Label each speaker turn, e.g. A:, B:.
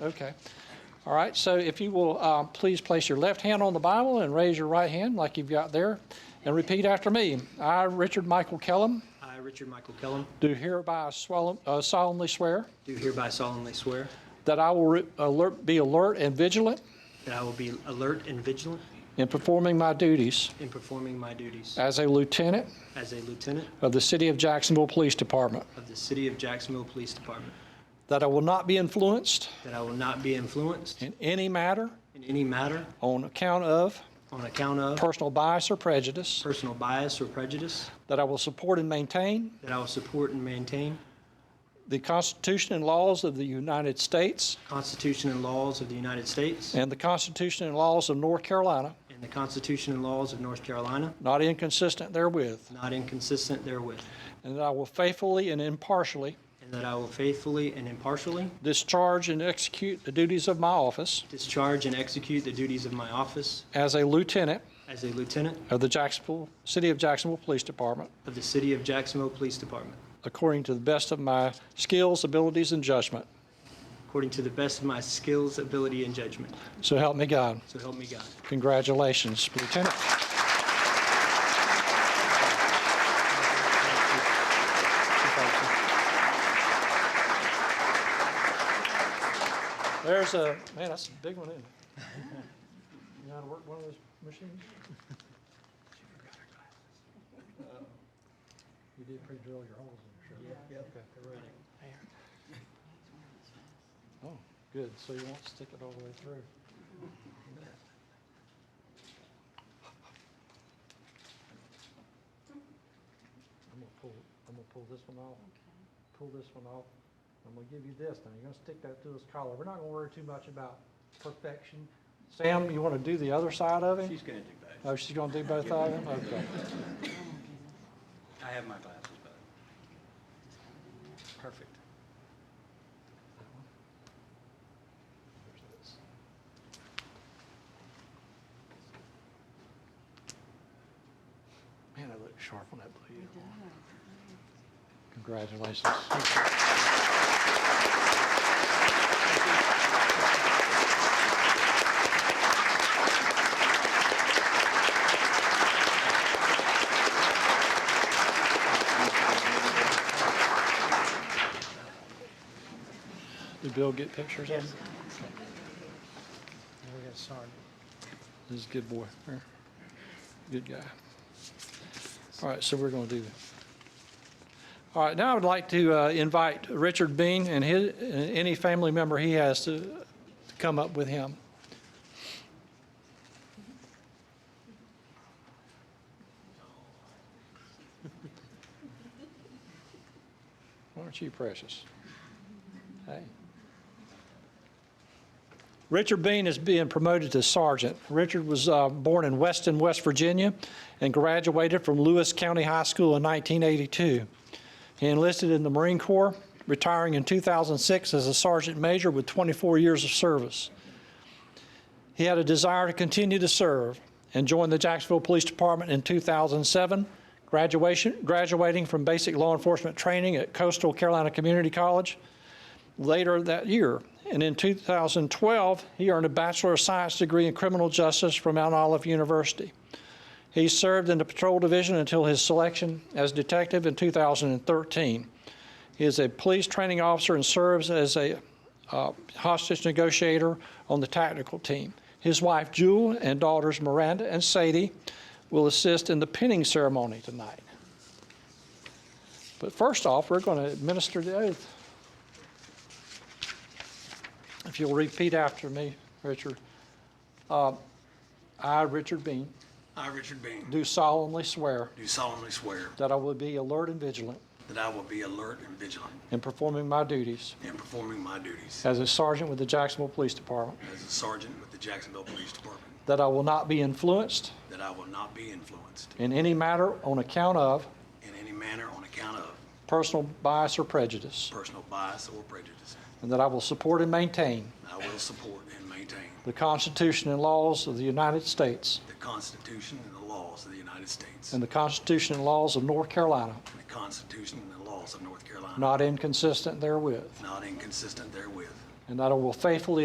A: Okay. All right, so if you will, uh, please place your left hand on the Bible and raise your right hand like you've got there, and repeat after me. I, Richard Michael Kellum,
B: I, Richard Michael Kellum,
A: do hereby swell- uh, solemnly swear
B: do hereby solemnly swear
A: that I will re- alert, be alert and vigilant
B: that I will be alert and vigilant
A: in performing my duties
B: in performing my duties
A: as a lieutenant
B: as a lieutenant
A: of the City of Jacksonville Police Department,
B: of the City of Jacksonville Police Department,
A: that I will not be influenced
B: that I will not be influenced
A: in any matter
B: in any matter
A: on account of
B: on account of
A: personal bias or prejudice,
B: personal bias or prejudice,
A: that I will support and maintain
B: that I will support and maintain
A: the Constitution and laws of the United States
B: Constitution and laws of the United States
A: and the Constitution and laws of North Carolina,
B: and the Constitution and laws of North Carolina,
A: not inconsistent therewith,
B: not inconsistent therewith,
A: and that I will faithfully and impartially
B: and that I will faithfully and impartially
A: discharge and execute the duties of my office
B: discharge and execute the duties of my office
A: as a lieutenant
B: as a lieutenant
A: of the Jacksonville, City of Jacksonville Police Department,
B: of the City of Jacksonville Police Department,
A: according to the best of my skills, abilities, and judgment.
B: according to the best of my skills, ability, and judgment.
A: So help me God.
B: So help me God.
A: Congratulations, Lieutenant. There's a, man, that's a big one, isn't it? You know how to work one of those machines? You did pre-drill your holes in your shirt. Oh, good, so you won't stick it all the way through. I'm gonna pull, I'm gonna pull this one off, pull this one off. I'm gonna give you this, now you're gonna stick that through his collar. We're not gonna worry too much about perfection. Sam, you wanna do the other side of him?
C: She's going to do both.
A: Oh, she's gonna do both of them? Okay.
C: I have my glasses, but. Perfect.
A: Man, I look sharp on that blue uniform. Congratulations. Did Bill get pictures of him?
B: We got Sergeant.
A: This is a good boy. Here. Good guy. All right, so we're going to do that. All right, now I would like to uh, invite Richard Bean and his, and any family member he has to to come up with him. Aren't you precious? Hey. Richard Bean is being promoted to sergeant. Richard was uh, born in Weston, West Virginia, and graduated from Lewis County High School in 1982. He enlisted in the Marine Corps, retiring in 2006 as a sergeant major with 24 years of service. He had a desire to continue to serve and joined the Jacksonville Police Department in 2007, graduation, graduating from basic law enforcement training at Coastal Carolina Community College later that year. And in 2012, he earned a Bachelor of Science degree in criminal justice from Mount Olive University. He served in the patrol division until his selection as detective in 2013. He is a police training officer and serves as a uh, hostage negotiator on the tactical team. His wife, Jewel, and daughters, Miranda and Sadie, will assist in the pinning ceremony tonight. But first off, we're going to administer the oath. If you'll repeat after me, Richard. Uh, I, Richard Bean,
C: I, Richard Bean,
A: do solemnly swear
C: do solemnly swear
A: that I will be alert and vigilant
C: that I will be alert and vigilant
A: in performing my duties
C: in performing my duties
A: as a sergeant with the Jacksonville Police Department,
C: as a sergeant with the Jacksonville Police Department,
A: that I will not be influenced
C: that I will not be influenced
A: in any matter on account of
C: in any manner on account of
A: personal bias or prejudice,
C: personal bias or prejudice,
A: and that I will support and maintain
C: and I will support and maintain
A: the Constitution and laws of the United States
C: the Constitution and the laws of the United States
A: and
C: and
A: the Constitution and laws of North Carolina,
C: the Constitution and the laws of North Carolina,
A: not inconsistent therewith,
C: not inconsistent therewith,
A: and that I will faithfully